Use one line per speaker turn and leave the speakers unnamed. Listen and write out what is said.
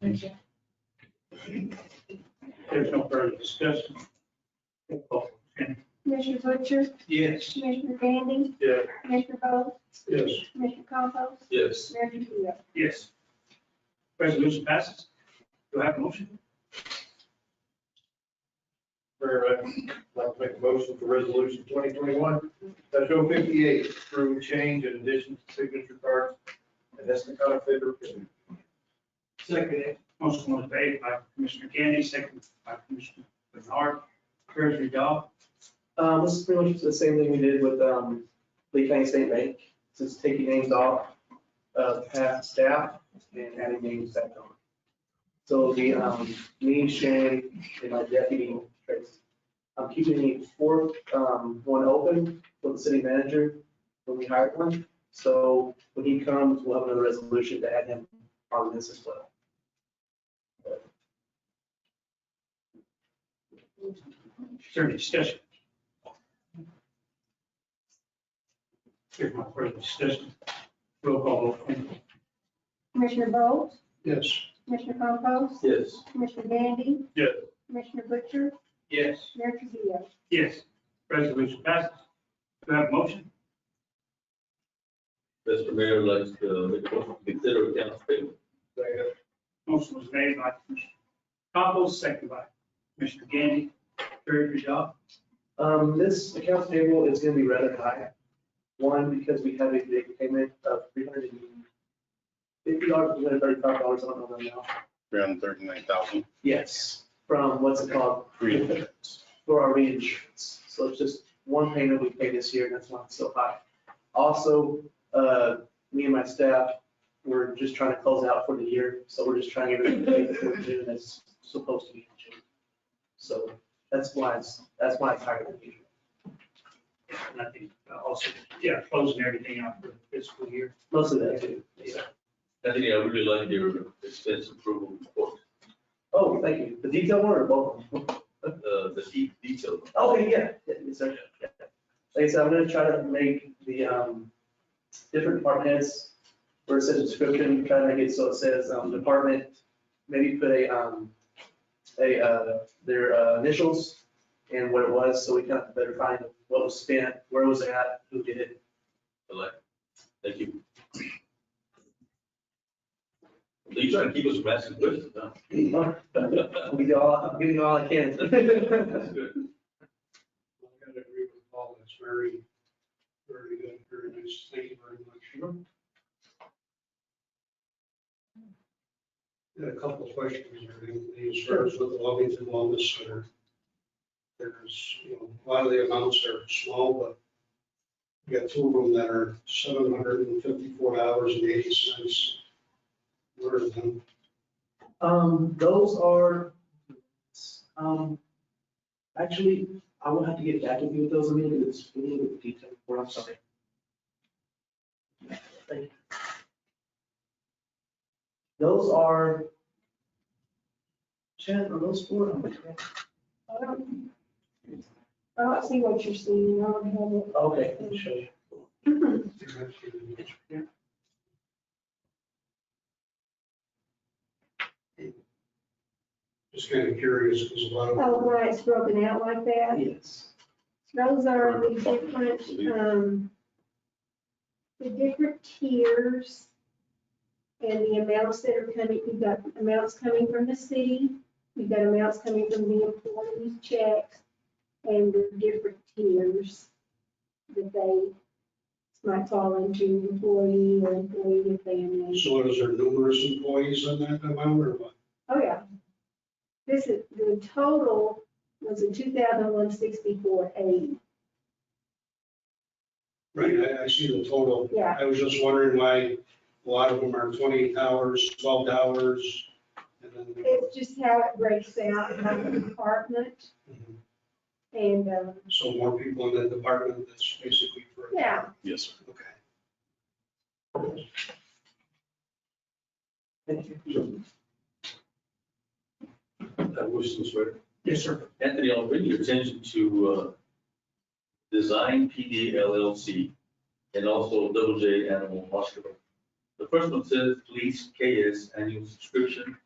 Thank you.
There's no further discussion. Roll call, Shannon.
Commissioner Butcher,
Yes.
Commissioner Gandy,
Yes.
Commissioner Bowe,
Yes.
Commissioner Compost,
Yes.
Mayor Trujillo.
Yes. Resolution passes. Do I have a motion?
Mayor, I'd like to make a motion for resolution twenty twenty-one, that's oh fifty-eight, through change in addition to signature cards. And that's the kind of favor.
Second. Motion was made by Commissioner Gandy, second by Commissioner Bernard. Treasury Dodd.
Um, this is pretty much the same thing we did with, um, Lee County State Bank, just taking names off, uh, past staff and adding names back on. So it'll be, um, me, Shane, and my deputy, Tracy. I'm keeping the fourth, um, one open for the city manager when we hire one. So when he comes, we'll have another resolution to add him on this as well.
Is there any discussion? There's no further discussion. Roll call, vote, Shannon.
Commissioner Bowe,
Yes.
Commissioner Compost,
Yes.
Commissioner Gandy.
Yes.
Commissioner Butcher,
Yes.
Mayor Trujillo.
Yes. Resolution passes. Do I have a motion?
Mr. Mayor, I'd like to make a motion to consider accounts payable.
Motion was made by Commissioner Compost, second by Commissioner Gandy. Treasury Dodd.
Um, this accounts payable is gonna be rather high. One, because we have a big payment of three hundred and fifty dollars, three hundred and thirty-five dollars, I don't know now.
three hundred thirty-nine thousand,
Yes. From what's it called,
three insurance.
for our reinsurance. So it's just one payment we pay this year, and that's why it's so high. Also, uh, me and my staff, we're just trying to close out for the year, so we're just trying to get everything paid before June that's supposed to be in June. So that's why it's, that's why it's higher than usual.
And I think uh, also, yeah, closing everything out for the fiscal year.
Most of that too.
I think I really like your expense approval report,
Oh, thank you. The detail one or both?
uh, the de- detail.
Okay, yeah, yeah, yes, sir. Yeah. Like I said, I'm gonna try to make the, um, different department heads, where it says description, try to make it so it says, um, department, maybe put a, um, a, uh, their uh, initials and what it was, so we kind of better find what was spent, where was it at, who did it.
I like. it. Thank you. You're trying to keep us from asking questions, huh?
I'll give you all, I'm giving you all I can.
That's good.
I gotta agree with Paul, that's very, very good, very nice, thank you very much. Got a couple of questions, here. These starts with Lovington Wellness Center. There's, you know, a lot of the amounts are small, but you got two of them that are seven hundred and fifty-four dollars and eighty cents. What are them?
Um, those are, um, actually, I will have to get back to you with those, I mean, it's a little bit detailed, or I'm sorry. Thank you. Those are, Chad, are those four?
I don't Um, I don't see what you're seeing, I don't have it.
Okay, let me show you.
Just kind of curious, because a lot of.
Oh, why it's broken out like that?
Yes.
Those are the different, um, the different tiers and the amounts that are coming, you've got amounts coming from the city, you've got amounts coming from the employees' checks and the different tiers that they might fall into employee or employee and family.
So is there numerous employees in that amount or what?
Oh, yeah. This is, the total was a two thousand one sixty-four eight.
Right, I, I see the total.
Yeah,
I was just wondering why a lot of them are twenty hours, twelve hours. and then-
It's just how it breaks out by department and, um,
So more people in that department, that's basically for.
yeah,
Yes, sir.
Okay.
Thank you.
I wish this were.
Yes, sir.
Anthony, I'll bring your attention to uh, Design PD LLC and also Double J Animal Hospital. The first one says police KS annual subscription